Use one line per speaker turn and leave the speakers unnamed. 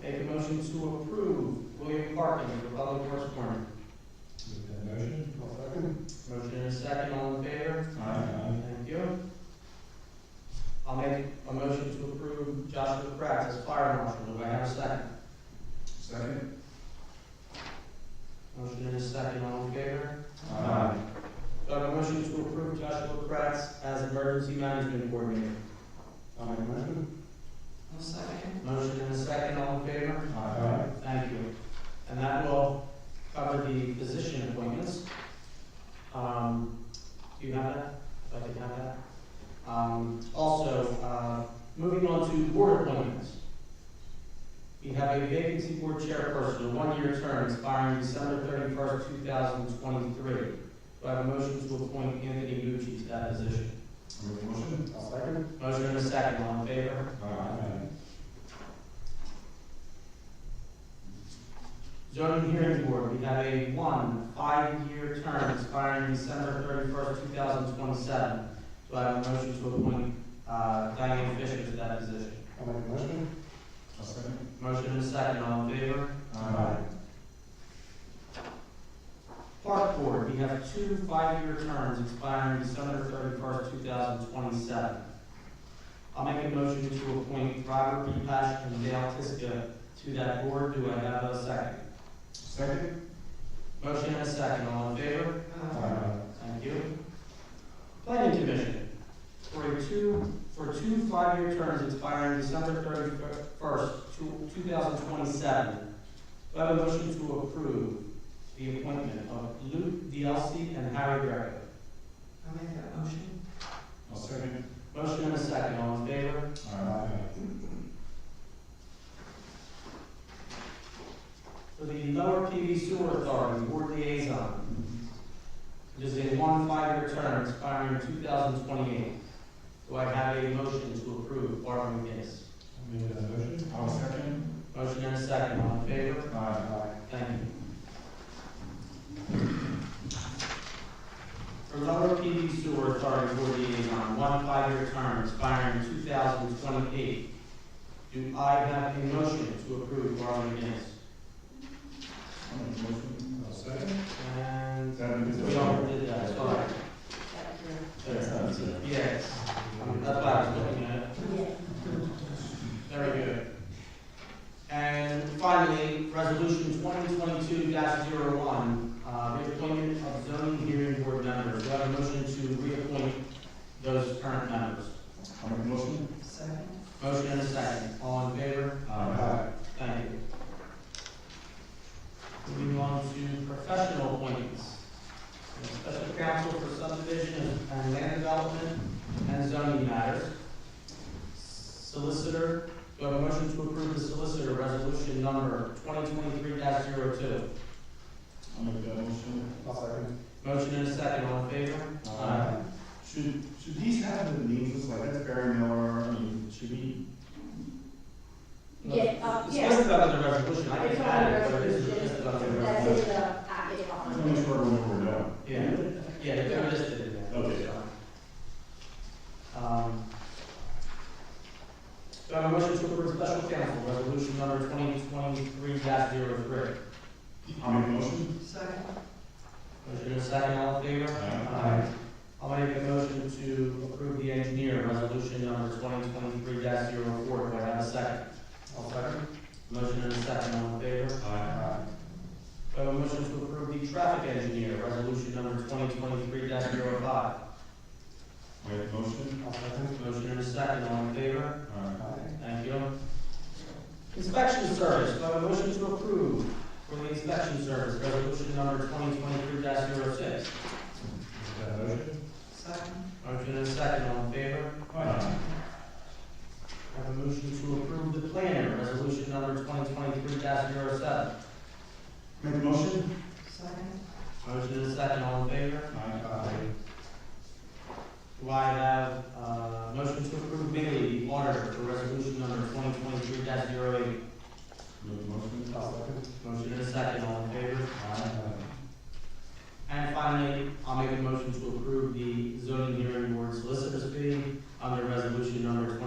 motions to approve William Parkin, Republic Works Department.
Make that motion.
I'll second.
Motion and a second, all in favor?
Aye.
Thank you. I'll make a motion to approve Joshua Kratz as fire marshal. Do I have a second?
Second.
Motion and a second, all in favor?
Aye.
Do I have a motion to approve Joshua Kratz as emergency management coordinator?
I'll make a motion.
I'll second.
Motion and a second, all in favor?
Aye.
Thank you. And that will cover the position appointments. Um, do you have that? If I could have that. Um, also, uh, moving on to board appointments. We have a vacancy board chairperson, a one-year term expiring December thirty-first, two thousand twenty-three. Do I have a motion to appoint Anthony Gucci to that position?
Make the motion.
I'll second.
Motion and a second, all in favor?
Aye.
Zoning Hearing Board, we have a one, five-year term expiring December thirty-first, two thousand twenty-seven. Do I have a motion to appoint uh, Diane Fisher to that position?
I'll make a motion.
I'll second.
Motion and a second, all in favor?
Aye.
Park Board, we have two, five-year terms expiring December thirty-first, two thousand twenty-seven. I'll make a motion to appoint Robert B. Pash and Dale Tiska to that board. Do I have a second?
Second.
Motion and a second, all in favor?
Aye.
Thank you. Planning Commission, for a two, for two five-year terms expiring December thirty-first, two thousand twenty-seven. Do I have a motion to approve the appointment of Luke DLC and Harry Greco?
I'll make that motion.
I'll second.
Motion and a second, all in favor?
Aye.
For the Lower PV Sewer Authority Board Liaison, it is a one five-year term expiring two thousand twenty-eight. Do I have a motion to approve Barbara McGinnis?
Make that motion. I'll second.
Motion and a second, all in favor?
Aye.
Thank you. For Lower PD Sewer Authority Board Liaison, one five-year term expiring two thousand twenty-eight. Do I have a motion to approve Barbara McGinnis?
I'll make the motion. I'll second.
And
That is.
we already did that, sorry.
That's it.
Yes, Um, that's what I was looking at. Very good. And finally, resolution twenty twenty-two one uh, reappointment of zoning hearing board members. Do I have a motion to reappoint those current members?
I'll make the motion.
Second.
Motion and a second. All in favor? Thank you. Moving on to professional appointments. We have Special counsel for subdivision and land development and zoning matters. Solicitor, do I have a motion to approve the solicitor resolution number twenty twenty-three 2
I'll make that motion.
I'll second.
Motion and a second, all in favor? Aye.
Should, should these have the names, like that's Barry Miller, I mean, should we?
Yeah, uh,
It's
yeah,
listed under the resolution, I
It's
can
on
add
the
it, but it is
resolution.
listed under the
that's
resolution.
in the
I
package
just want to make
behind.
sure we're done.
Yeah. Yeah, they're listed in there.
Okay.
Um, Do I have a motion to approve special counsel resolution number twenty twenty-three 3
I'll make the motion.
Second.
Motion is second, all in favor?
Aye.
I'll make a motion to approve the engineer resolution number twenty twenty-three 4 do I have a second?
I'll second.
Motion is second, all in favor?
Aye.
Do I have a motion to approve the traffic engineer resolution number twenty twenty-three 5
Make the motion.
I'll second.
Motion is second, all in favor?
Aye.
Aye.
Thank you. Inspection service, do I have a motion to approve for the inspection service, resolution number twenty twenty-three 6
Make that motion.
Second.
Motion and a second, all in favor?
Aye.
I have a motion to approve the planner, resolution number twenty twenty-three 7
Make the motion.
Second.
Motion and a second, all in favor?
Aye.
Do I have, uh, motion to approve Bailey, the auditor, for resolution number twenty twenty-three 8
Make the motion.
I'll second.
Motion and a second, all in favor?
Aye.
And finally, I'll make a motion to approve the zoning hearing board solicitor's fee under resolution number